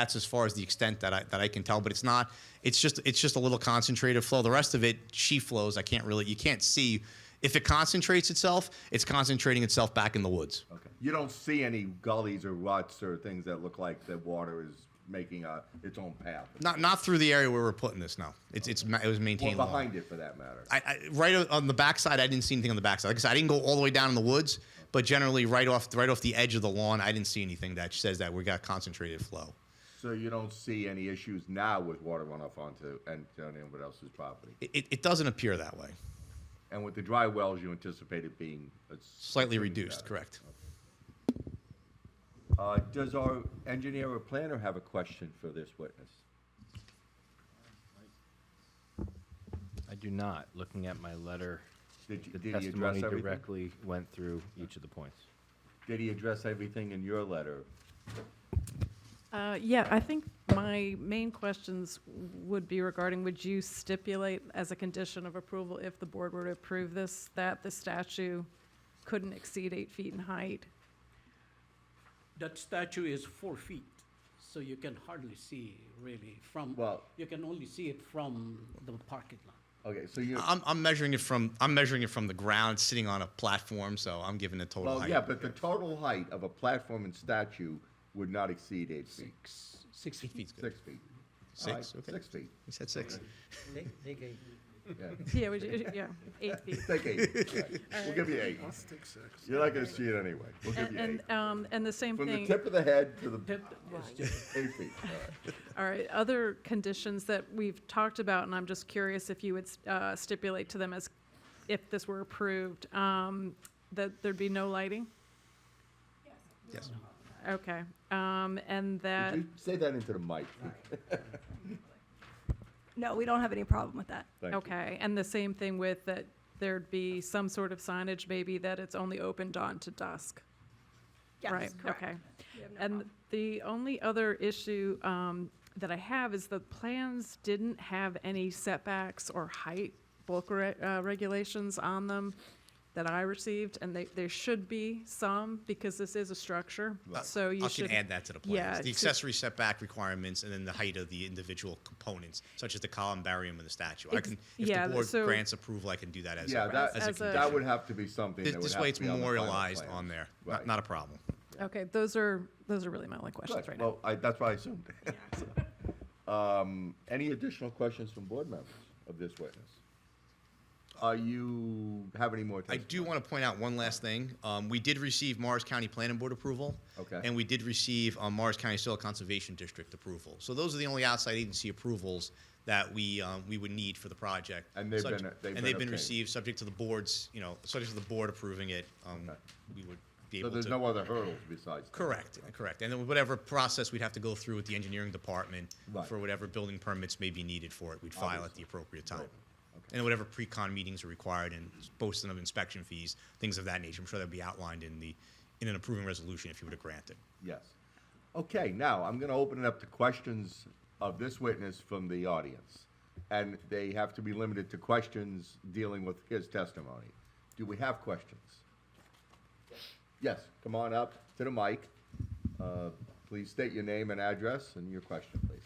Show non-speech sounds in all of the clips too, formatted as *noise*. that's as far as the extent that I that I can tell. But it's not. It's just it's just a little concentrated flow. The rest of it, she flows. I can't really. You can't see. If it concentrates itself, it's concentrating itself back in the woods. Okay. You don't see any gullies or ruts or things that look like the water is making a, its own path. Not not through the area where we're putting this. No, it's it's ma- it was or maintained. long. behind it, for that matter. I, I, right on the backside, I didn't see anything on the backside. Like I said, I didn't go all the way down in the woods, but generally, right off right off the edge of the lawn, I didn't see anything that says that we got concentrated flow. So you don't see any issues now with water runoff onto Antonio and what else's property. It, it, it doesn't appear that way. And with the dry wells, you anticipate it being a Slightly reduced, correct. Uh, does our engineer or planner have a question for this witness? I do not. Looking at my letter, Did, you- the did he address testimony everything? directly went through each of the points. Did he address everything in your letter? Uh, Yeah, I think my main questions would be regarding, would you stipulate as a condition of approval, if the board were to approve this, that the statue couldn't exceed eight feet *laughs* in height? That statue is four feet, so you can hardly see really from, Well- you can only see it from the parking lot. Okay, so you. I'm, I'm measuring it from I'm measuring it from the ground, sitting on a platform, so I'm giving it total Well, height. yeah, but the total height of a platform and statue would not exceed eight feet, Six, six feet's feet. good. six feet. All right, Six. Okay. Six feet, He said six. They, they gave yeah. Yeah, would you, yeah, eight feet. *laughs* Take eight. Right. We'll give you eight. I'll stick six. You're not gonna see it anyway. We'll give And, you eight. and, um, and the same From the thing. tip of the head to the Tip is just- eight feet. All right. All right, other conditions that we've talked about, and I'm just curious if you would uh, stipulate to them as, if this were approved, um, that there'd be no lighting? Yes. Okay, um, and that, Would you say that into the mic? No, we don't have any problem with that. Thank you. okay, and the same thing with that there'd be some sort of signage, maybe that it's only open dawn to dusk? Yes, Right, correct. okay. We have no And problem. the only other issue um, that I have is the plans didn't have any setbacks or height bulk re- uh, regulations on them that I received, and they, there should be some, because this is a structure, so you I should. can add that to the plans. Yeah, the to- accessory setback requirements and then the height of the individual components, such as the columbarium and the statue. I Ex- can, if yeah, the board so- grants approval, I can do that as Yeah, a, that, as a As a- that would have to be something This, that would this have way, to it's be on the final memorialized plans. on there. Right. Not, not a problem. Okay, those are, those are really my only questions Good. right now. Well, I, that's what I assumed. *laughs* Um, any additional questions from board members of this witness? Are you, have any more? I do want to point out one last thing. Um, we did receive Mars County Planning Board approval. Okay. And we did receive um, Mars County Soil Conservation District approval. So those are the only outside agency approvals that we, um, we would need for the project. And they've Such- been- they've been And they've been obtained. received, subject to the board's, you know, subject to the board approving it. um, We would be So able to. there's no other hurdles besides? that? Correct, correct. And then whatever process we'd have to go through with the engineering department Right. for whatever building permits may be needed for it, we'd file at the Obviously. appropriate Right. time. Okay. And whatever pre-con meetings are required and posting of inspection fees, things of that nature. I'm sure that'd be outlined in the, in an approving resolution if you were to grant it. Yes. Okay, now I'm going to open it up to questions of this witness from the audience. And they have to be limited to questions dealing with his testimony. Do we have questions? Yes, come on up to the mic. Uh, Please state your name and address and your question, please.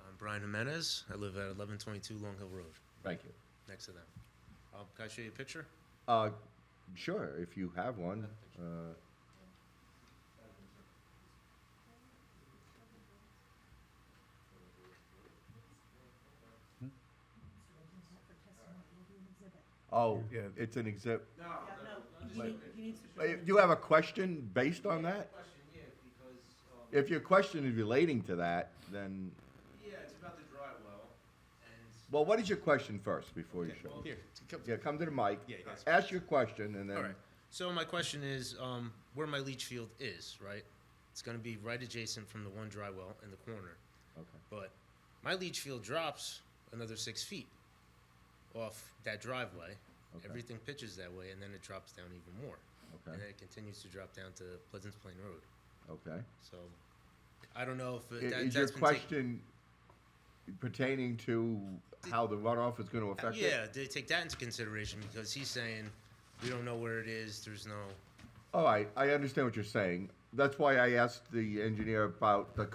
I'm Brian Jimenez. I live at 1122 Long Hill Road, Thank you. next to them. Um, can I show you a picture? Uh, Sure, if you have one. Uh, Oh, it's an exhibit. Do you have a question based on that? Question, yeah, because, um, If your question is relating to that, then, yeah, it's about the dry well, and, well, what is your question first before you show? here, come, Yeah, come to the mic. Yeah, yeah, that's- Ask your question and All then, right. So my question is, um, where my leach field is, right? It's going to be right adjacent from the one dry well in the corner. Okay. But my leach field drops another six feet off that driveway. Everything pitches that way, and then it drops down even more. Okay. And then it continues to drop down to Pleasant Plain Road. okay. So I don't know if I- it, that, Is your that's been taken- question pertaining to how the runoff is going to affect it? Yeah, they take that into consideration because he's saying we don't know where it is. There's no. All right, I understand what you're saying. That's why I asked the engineer about the